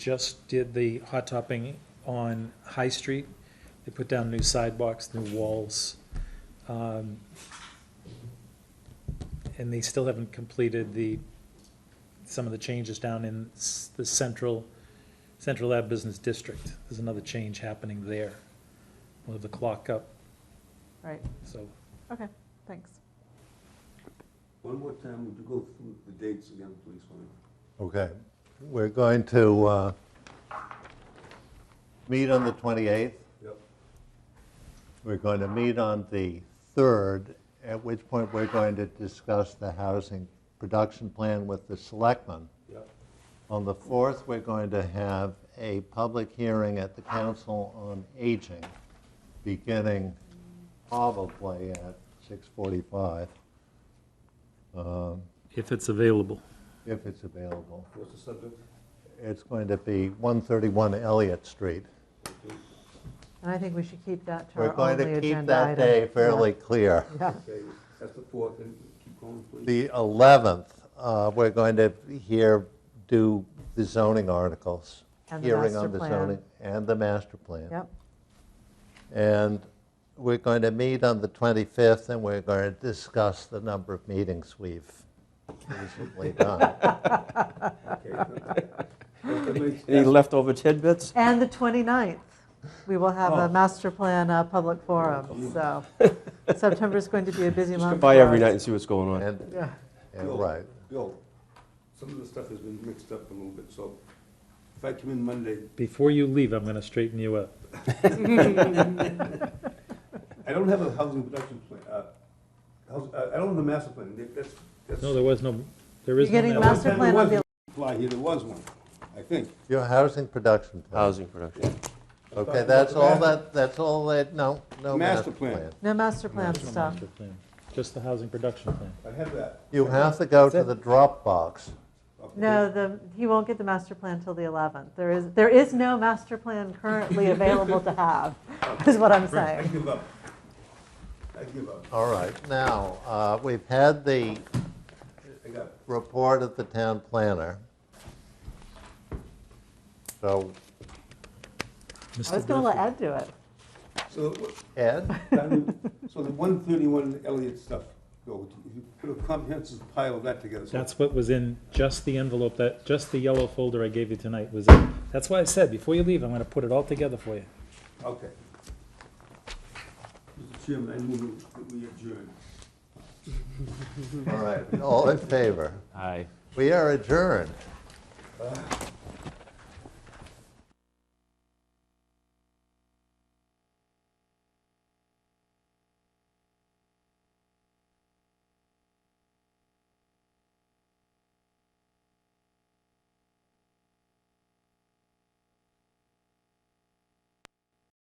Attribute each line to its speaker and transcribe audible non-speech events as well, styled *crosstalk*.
Speaker 1: just did the hot topping on High Street. They put down new sidewalks, new walls. um, And they still haven't completed the, some of the changes down in s- the central, Central Lab Business District. There's another change happening there. We'll have the clock up,
Speaker 2: Right,
Speaker 1: so
Speaker 2: okay, thanks.
Speaker 3: One more time, would you go through the dates again, please, Wayne?
Speaker 4: Okay, we're going to uh, meet on the 28th.
Speaker 3: Yep.
Speaker 4: We're going to meet on the 3rd, at which point we're going to discuss the housing production plan with the selectmen.
Speaker 3: Yep.
Speaker 4: On the 4th, we're going to have a public hearing at the Council on Aging, beginning probably at 6:45,
Speaker 1: if it's available.
Speaker 4: if it's available.
Speaker 3: What's the subject?
Speaker 4: It's going to be 131 Elliott Street.
Speaker 2: And I think we should keep that to
Speaker 4: We're
Speaker 2: our
Speaker 4: going
Speaker 2: only agenda item.
Speaker 4: to keep that day fairly clear.
Speaker 2: Yeah,
Speaker 3: Okay, that's the fourth, and keep going, please.
Speaker 4: The 11th, uh, we're going to here do the zoning articles.
Speaker 2: And the
Speaker 4: hearing
Speaker 2: master
Speaker 4: on the
Speaker 2: plan.
Speaker 4: zoning And the master plan.
Speaker 2: yep,
Speaker 4: And we're going to meet on the 25th, and we're going to discuss the number of meetings we've
Speaker 2: *laughs*
Speaker 4: recently done.
Speaker 5: Any
Speaker 3: Okay.
Speaker 5: leftover tidbits?
Speaker 2: and the 29th, we will have a master plan uh, public forum, so September's going to be a busy
Speaker 5: Just
Speaker 2: month.
Speaker 5: come by
Speaker 2: for
Speaker 5: every
Speaker 2: us.
Speaker 5: night and see what's going on.
Speaker 4: And,
Speaker 2: Yeah,
Speaker 4: and right,
Speaker 3: Bill, some of the stuff has been mixed up a little bit, so if I come in Monday,
Speaker 1: Before you leave, I'm going to straighten you up.
Speaker 3: I don't have a housing production plan, uh, house- uh, I I don't have the master plan, That- that's, that's.
Speaker 1: No, there was no, there
Speaker 2: you're
Speaker 1: is no.
Speaker 2: getting
Speaker 1: master-
Speaker 2: master
Speaker 3: There
Speaker 2: plan on
Speaker 3: was
Speaker 2: the,
Speaker 3: one Fly here, there was one, I think.
Speaker 4: your housing production plan.
Speaker 5: Housing production.
Speaker 4: Okay, that's all that, that's all that, no, no master
Speaker 3: Master plan.
Speaker 4: plan.
Speaker 2: no master plan
Speaker 1: No
Speaker 2: stuff.
Speaker 1: master plan, Just the housing production plan.
Speaker 3: I have that.
Speaker 4: You have to go to the Dropbox.
Speaker 3: Okay.
Speaker 2: No, the, he won't get the master plan till the 11th. There is, there is no master plan currently available to have, is what I'm
Speaker 3: I
Speaker 2: saying.
Speaker 3: give up. I give up,
Speaker 4: All right, now, uh, we've had the
Speaker 3: I got it.
Speaker 4: report of the town planner. So,
Speaker 2: I was
Speaker 1: Mr.
Speaker 2: going to let
Speaker 1: Durfee.
Speaker 2: Ed do it.
Speaker 3: So, what-
Speaker 4: Ed,
Speaker 3: So the one thirty-one Elliott stuff, Bill, if you put a comprehensive pile of that together. so-
Speaker 1: That's what was in just the envelope that, just the yellow folder I gave you tonight was in. That's why I said, before you leave, I'm gonna put it all together for you.
Speaker 3: Okay. Mr. Chairman, I move that we adjourn.
Speaker 4: all right, all in favor?
Speaker 5: Aye.
Speaker 4: We are adjourned.